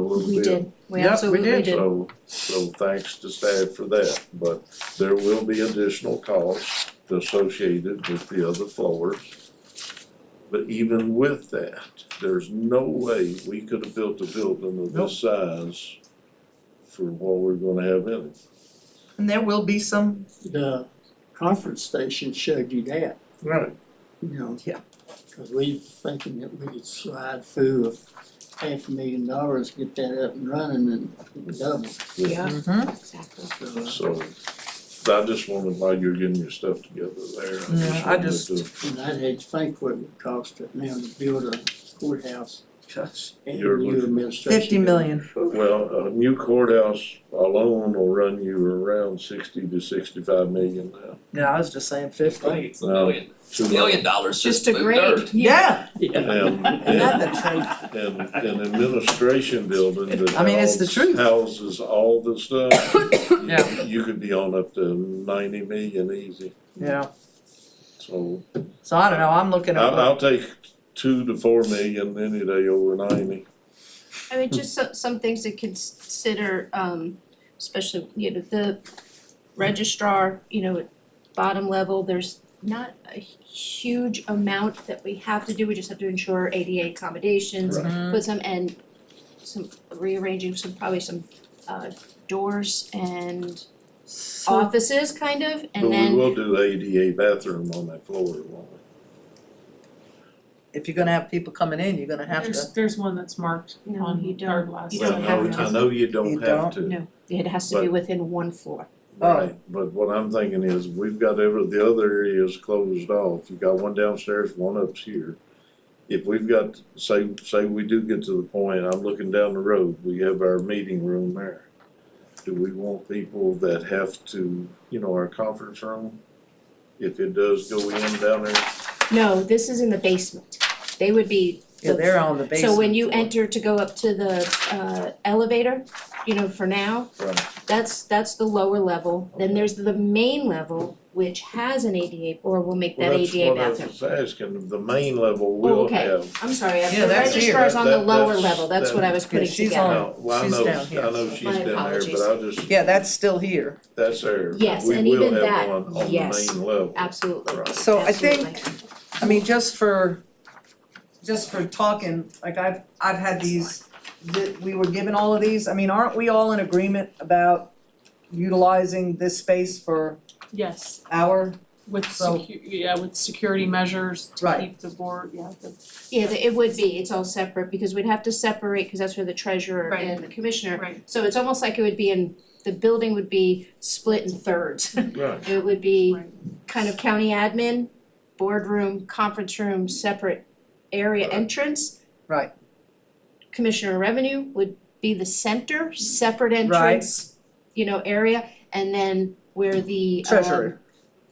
little bit. We did, we Yep, we absolutely did. did. So, so thanks to staff for that, but there will be additional costs associated with the other floors. But even with that, there's no way we could have built a building of Nope. this size for what we're gonna have in it. And there will be some, the conference station showed you that, Right. you know. Yeah. Cause we thinking that we could slide through of half a million dollars, get that up and running and double, Yeah. exactly. so. uh, So, I just wanted, while you're getting your stuff together there, I Yeah, just I wanted just- to, And I'd hate to think what it would cost it now to build a courthouse gosh, and You're new looking- administration. fifty million. well, a new courthouse alone will run you around sixty to sixty-five million now. Yeah, I was just saying fifty. It's a million, Too much. million dollars Just just a moved dirt. grade, yeah, Yeah, Yeah. And, and, another truth. and an administration building that I mean, it's the house- truth. Houses all the stuff. you- Yeah. You could be on up to ninety million easy, Yeah, so so I don't know, I'm looking I'll, at, I'll take two to four million any day over ninety. I mean, just so, some things to consider, um, especially, you know, the registrar, you know, at bottom level, there's not a huge amount that we have to do, we just have to ensure ADA accommodations, Right. Mhm. put some, and some rearranging some, probably some, uh, doors and offices kind of, But and we then, will do ADA bathroom on that floor, won't we? if you're gonna have people coming in, you're gonna have to. There's, there's one that's marked No, you on don't. third last. You Well, don't have no, to. I know you You don't have to. don't? no, it has to be within one floor. Oh. Right, but what I'm thinking is, we've got every, the other areas closed off, you got one downstairs, one upstairs. If we've got, say, say we do get to the point, I'm looking down the road, we have our meeting room there. Do we want people that have to, you know, our conference room, if it does go in down there? No, this is in the basement, they would be Yeah, they're on the basement. So when you floor. enter to go up to the uh elevator, you know, for now, Right. that's that's the lower level. Then there's the main level, which has an ADA or will make that Well, that's ADA what I bathroom. was asking, the main level Oh, will okay. have. I'm sorry, I- Yeah, the that's here. registrar's on the That- lower that's- level, that's what I was Yeah, putting she's together. No, well, I She's know, down here. I know she's My down there, apologies. but I just. Yeah, that's still here. That's there, Yes, but we and will even that, have one on the main yes. level. Absolutely, Right. So I think absolutely. I mean, just for, just for talking, like I've, I've had these, that we were given all of these, I mean, aren't we all in agreement about utilizing this space for Yes, our, with So- secu- yeah, with security measures to Right. keep the board, yeah, the Yeah, th- it would be, it's all separate because we'd have to separate, cause that's where the treasurer Right. and the commissioner. Right. So it's almost like it would be in, the building would be split in thirds. Right. It would be Right. kind of county admin, boardroom, conference room, separate area Right. entrance. Right. Commissioner revenue would be the center, separate entrance, you know, area, and then where the um, Treasury.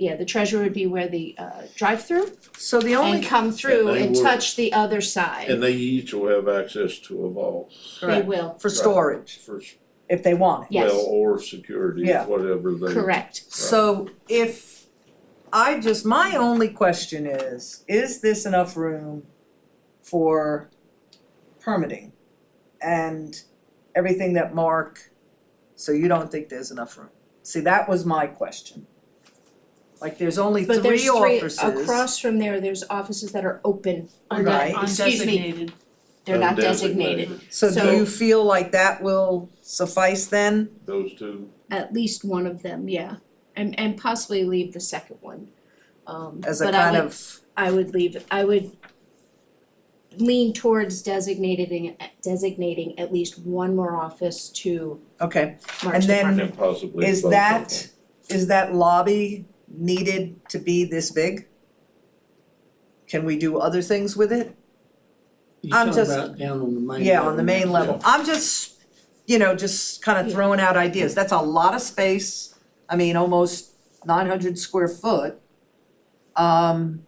Yeah, the treasurer would be where the uh drive-through so the and only, come through And they and would- touch the other side, And they each will have access to a vault they Correct. will, for storage, for, if they want it. Yes. well, or security, Yeah. whatever they. correct. So if, I just, my only question is, is this enough room for permitting? And everything that Mark, so you don't think there's enough room? See, that was my question. Like, there's only But there's three three, offices. across from there, there's offices that are open, unde- Right. Excuse me. undesignated. they're not Undesignated. designated, So so- do you feel like that will suffice then? Those two, at least one of them, yeah. And and possibly leave the second one. Um As a but I kind would- of, I would leave, I would lean towards designating designating at least one more office to okay, March And then- and Department. then possibly is both of that, is that lobby needed to be this big? Can we do other things with it? You I'm talking just- about down on the main level. Yeah, on the main now. level. I'm just, you know, just kind of Yeah. throwing out ideas. That's a lot of space. I mean, almost nine hundred square foot. Um,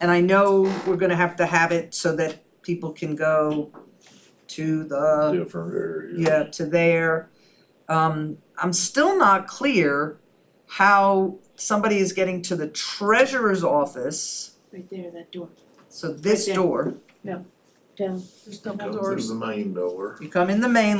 and I know we're gonna have to have it so that people can go to the, Different areas. uh, yeah, to there. Um, I'm still not clear how somebody is getting to the treasurer's office, Right there, that door, so this Right there. door. down. There's double Come doors. through the main door. You come in the main